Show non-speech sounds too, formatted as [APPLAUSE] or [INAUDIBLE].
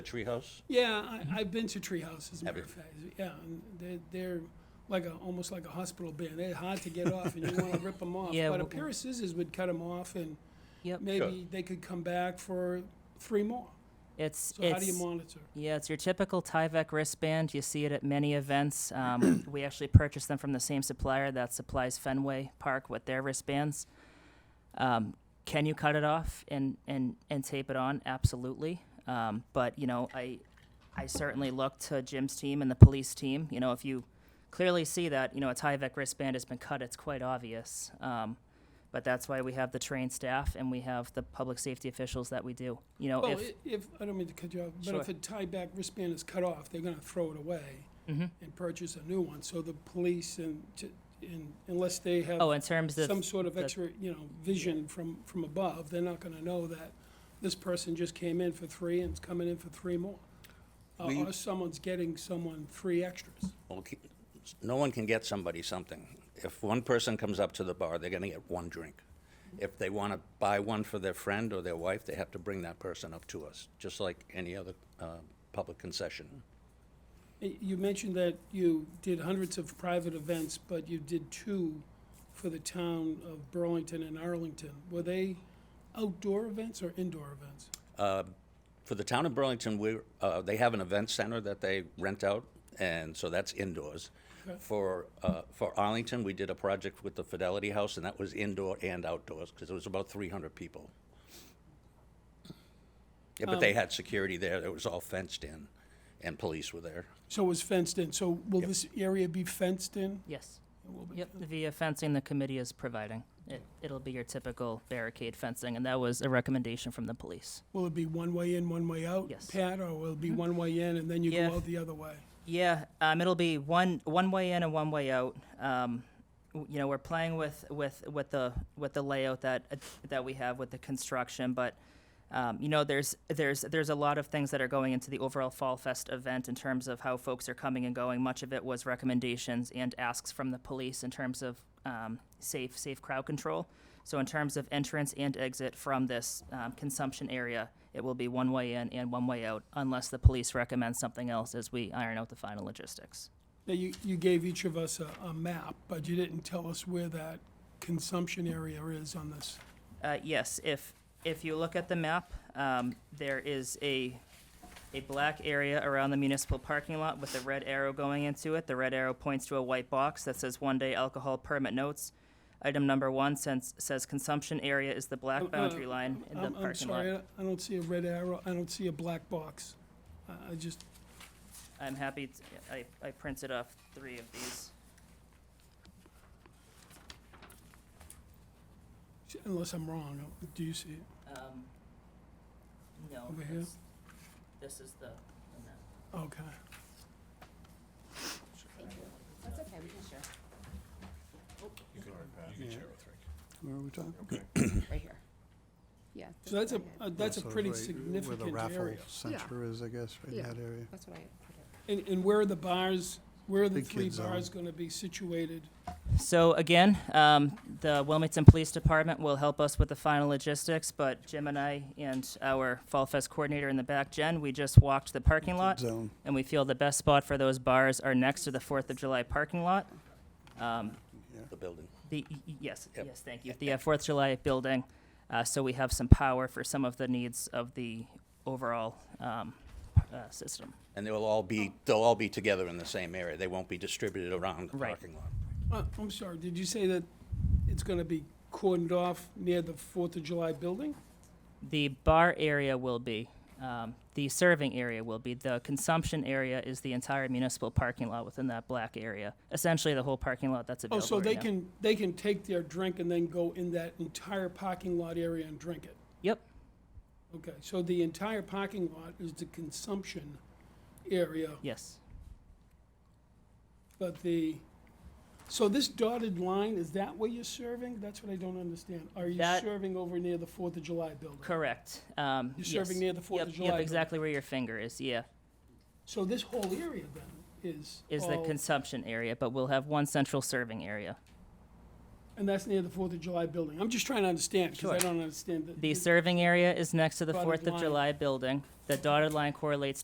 The treehouse? Yeah, Mm-hmm. I, I've been to treehouses. As a matter you? of fact, yeah, and they're, they're like a almost like a hospital band. They're hard to get off, and you want to rip them off. Yeah, but a well- pair of scissors would cut them off, and Yep. maybe they could come back for three more. It's So it's how do you monitor? yeah, it's your typical Tyvek wristband. You see it at many events. [COUGHS] Um, we actually purchased them from the same supplier that supplies Fenway Park with their wristbands. Um, can you cut it off and and and tape it on? Absolutely. Um, but you know, I I certainly look to Jim's team and the police team. You know, if you clearly see that you know a Tyvek wristband has been cut, it's quite obvious. Um, but that's why we have the trained staff and we have the public safety officials that we do. You know, Well, Oh, if i- if, I don't mean to cut you off, but Sure. if a tie back wristband is cut off, they're gonna throw it away Mm-hmm. and purchase a new one, so the police and, t- and unless they Oh, have in terms of some sort of the- extra, you know, vision from, from above, they're not gonna know that this person just came in for three and is coming in for three more. Or We- or someone's getting someone three extras. Okay. No one can get somebody something. If one person comes up to the bar, they're gonna get one drink. If they wanna buy one for their friend or their wife, they have to bring that person up to us, just like any other, uh, public concession. Y- You mentioned that you did hundreds of private events, but you did two for the town of Burlington and Arlington. Were they outdoor events or indoor events? For the town of Burlington, we, uh, they have an event center that they rent out, and so that's indoors. For, uh, for Arlington, we did a project with the Fidelity House, and that was indoor and outdoors, because it was about three hundred people. Yeah, but they had security there, it was all fenced in, and police were there. So it was fenced in, so will this area be fenced in? yes, It will be. yep, via fencing the committee is providing. It, it'll be your typical barricade fencing, and that was a recommendation from the police. Will it be one way in, one way out? Yes. Pat, or will it be one way in and then you Yeah. go out the other way? Yeah, um, it'll be one one way in and one way out. Um, w- you know, we're playing with with with the with the layout that that we have with the construction, but. Um, you know, there's there's there's a lot of things that are going into the overall Fall Fest event in terms of how folks are coming and going. Much of it was recommendations and asks from the police in terms of um, safe safe crowd control. So in terms of entrance and exit from this um, consumption area, it will be one way in and one way out, unless the police recommend something else as we iron out the final logistics. Now, you, you gave each of us a, a map, but you didn't tell us where that consumption area is on this. Uh, yes, if, if you look at the map, um, there is a, a black area around the municipal parking lot with a red arrow going into it. The red arrow points to a white box that says one-day alcohol permit notes. Item number one says, says consumption area is the black boundary line in the Oh, I'm, I'm parking lot. sorry, I I don't see a red arrow, I don't see a black box. I, I just, I'm happy, t- I, I printed off three of these. unless I'm wrong, do you see it? Um, No. Over here? that's- This is the, the map. Okay. That's okay, we can share. Where are we talking? Right here. Yeah. So that's a, what a- I had. that's a So pretty right significant Where the area. raffle center is, I guess, right in Yeah. that area. That's what I had put in. And, and where are the bars, where are the Big three kids zone. bars gonna be situated? So again, um, the Wilmington Police Department will help us with the final logistics, but Jim and I and our Fall Fest coordinator in the back, Jen, we just walked the parking lot, Zone. and we feel the best spot for those bars are next to the Fourth of July parking lot. The building. The, y- y- yes, Yep. yes, thank you, the uh, Fourth of July building, uh, so we have some power for some of the needs of the overall, um, uh, system. And they'll all be, they'll all be together in the same area. They won't be distributed around the Right. parking lot. Uh, I'm sorry, did you say that it's gonna be cordoned off near the Fourth of July building? The bar area will be, um, the serving area will be, the consumption area is the entire municipal parking lot within that black area. Essentially, the whole parking lot that's Oh, available so they right now. can, they can take their drink and then go in that entire parking lot area and drink it? Yep, Okay, so the entire parking lot is the consumption area, yes. but the, so this dotted line, is that where you're serving? That's what I don't understand. Are you That- serving over near the Fourth of July building? Correct, um, You're yes. serving near the Fourth Yep, of July Yep, building. exactly where your finger is, yeah, So this whole area then is is the all- consumption area, but we'll have one central serving area. And that's near the Fourth of July building. I'm just trying to understand, because I Sure. don't understand the. The serving area is next to the Dotted Fourth of line. July building. The dotted line correlates